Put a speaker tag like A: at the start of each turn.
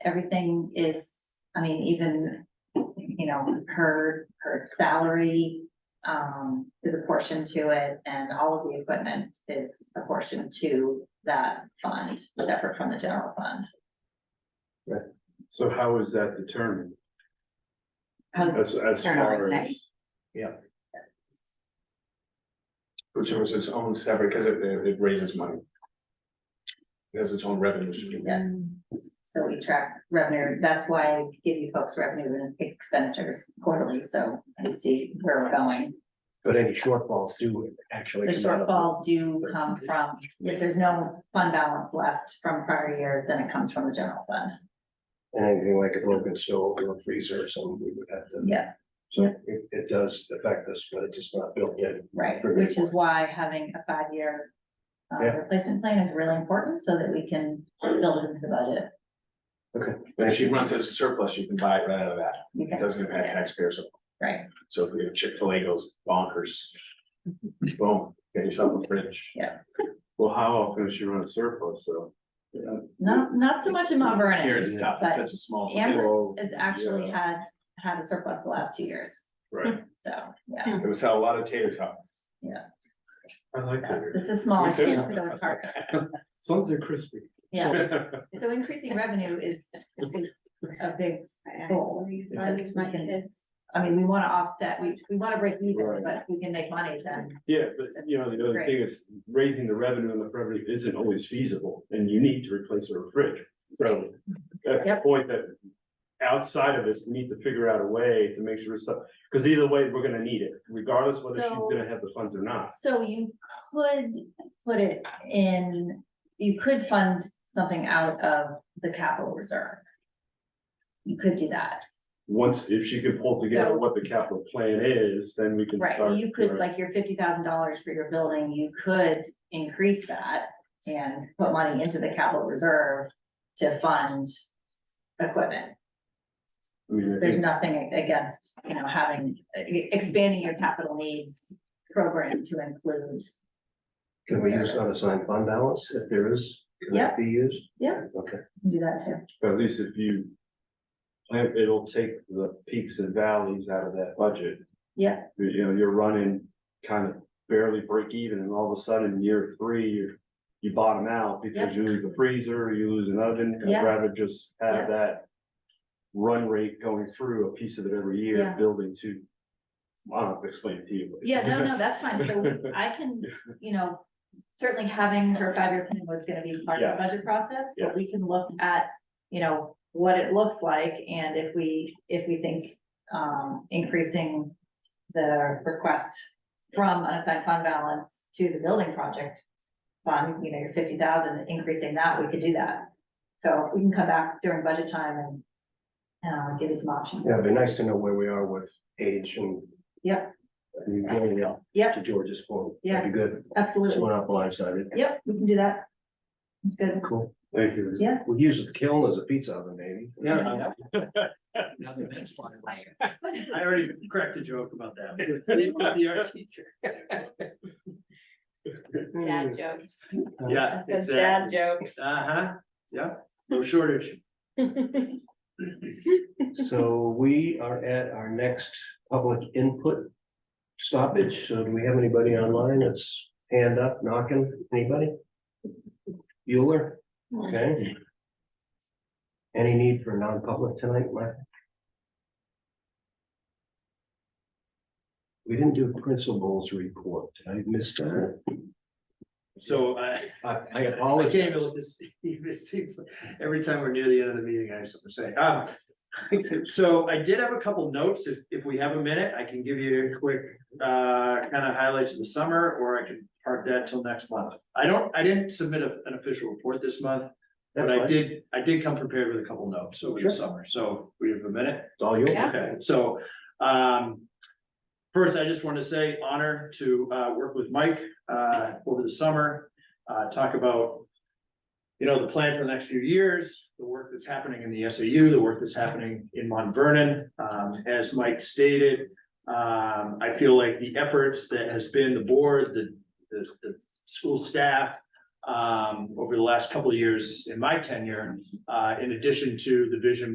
A: everything is, I mean, even, you know, her, her salary um, is a portion to it, and all of the equipment is a portion to that fund, separate from the general fund.
B: So how is that determined?
A: How does-
B: As, as
C: Turn on
B: far
C: its
B: as.
D: Which was its own separate, because it, it raises money. It has its own revenue stream.
A: Yeah. So we track revenue, that's why I give you folks revenue and expenditures quarterly, so you see where we're going.
E: But any shortfalls do actually.
A: The
E: come out of-
A: shortfalls do come from, if there's no fund balance left from prior years, then it comes from the general fund.
E: And anything like a broken stove or a freezer or something, we would have to.
A: Yeah.
E: So it, it does affect us, but it's just not built in.
A: Right, which is why having a five-year uh,
E: Yeah.
A: replacement plan is really important so that we can build it into the budget.
D: But if she runs as a surplus, you can buy it right out of that.
A: You
D: It
A: can-
D: doesn't impact taxpayers.
A: Right.
D: So if we have Chick-fil-A goes bonkers. Boom, get yourself a fridge.
B: Well, how often is she run a surplus, so?
A: Not, not so much in Mount Vernon.
D: Here it's tough, it's such a small. It
A: Amherst has actually had, had a surplus the last two years,
B: Right,
A: so, yeah,
D: was sell a lot of tater tots.
B: I like that.
A: this is smaller
D: Me too.
A: scale, so it's hard,
B: As long as they're crispy.
A: yeah. So increasing revenue is, is a big goal. because we can- I mean, we wanna offset, we, we wanna break even,
B: Right.
A: but if we can make money then,
B: Yeah, but you know, the other
A: Great.
B: thing is raising the revenue and the revenue isn't always feasible and you need to replace a fridge. So that's the
A: Yep.
B: point that outside of us, we need to figure out a way to make sure stuff, because either way, we're gonna need it, regardless whether she's
A: So-
B: gonna have the funds or not.
A: so you could put it in, you could fund something out of the capital reserve. You could do that,
B: Once, if she can pull together
A: So-
B: what the capital plan is, then we can
A: right,
B: start.
A: you could, like, your fifty thousand dollars for your building, you could increase that and put money into the capital reserve to fund equipment.
B: I mean, I
A: there's
B: think-
A: nothing against, you know, having, expanding your capital needs program to include.
E: Can we use unassigned fund balance if there is? Can that Be used?
A: Yeah.
E: Okay.
A: Do that too.
B: At least if you. plan- It'll take the peaks and valleys out of that budget.
A: Yeah.
B: You- You know, you're running kind of barely break even and all of a sudden year three, you, you bottom out because you lose a freezer, you lose an oven. I'd
A: Yeah.
B: rather just
A: Yeah.
B: have that run rate going through a piece of it every year,
A: Yeah.
B: building to. I don't have to explain it to you. but-
A: Yeah, no, no, that's fine. So we- I can, you know, certainly having her five-year plan was gonna be part of the budget process, but
B: Yeah.
A: we can look at, you know, what it looks like and if we, if we think, um, increasing the request from unassigned fund balance to the building project fund, you know, your fifty thousand, increasing that, we could do that. So we can come back during budget time and, uh, give you some options.
E: Yeah, it'd be nice to know where we are with age and.
A: Yep.
E: And going up.
A: Yep.
E: To George's point.
A: Yeah.
E: That'd be good. So
A: Absolutely.
E: we're not blindsided.
A: Yep, we can do that. That's good.
E: Cool.
B: Thank you.
E: We'll use the kiln as a pizza oven, maybe.
F: Yeah. Now the next one. I already cracked a joke about that. Leave with the art teacher.
C: Dad jokes.
F: Yeah,
C: That's those dad
F: exactly.
C: jokes.
F: Uh huh, yeah, no shortage.
E: So we are at our next public input stoppage. So do we have anybody online that's hand up, knocking? Anybody? Bueller? Okay. Any need for non-public tonight, Mike? We didn't do principals report. Did I miss that.
F: So I.
E: I I
F: I can't
E: apologize.
F: even let this, it seems like every time we're near the end of the meeting, I have something to say. Um, So I did have a couple notes. If, if we have a minute, I can give you a quick, uh, kind of highlights of the summer, or I can park that till next month. I don't, I didn't submit a- an official report this month, but
E: That's
F: I
E: fine.
F: did, I did come prepared with a couple notes over the
E: Sure.
F: summer. So we have a minute.
E: It's all yours.
C: Yeah.
F: Okay, so, um. First, I just want to say honor to, uh, work with Mike, uh, over the summer, uh, talk about. You know, the plan for the next few years, the work that's happening in the SAU, the work that's happening in Mont Vernon, um, as Mike stated. Um, I feel like the efforts that has been the board, the, the, the school staff, um, over the last couple of years in my tenure, uh, in addition to the vision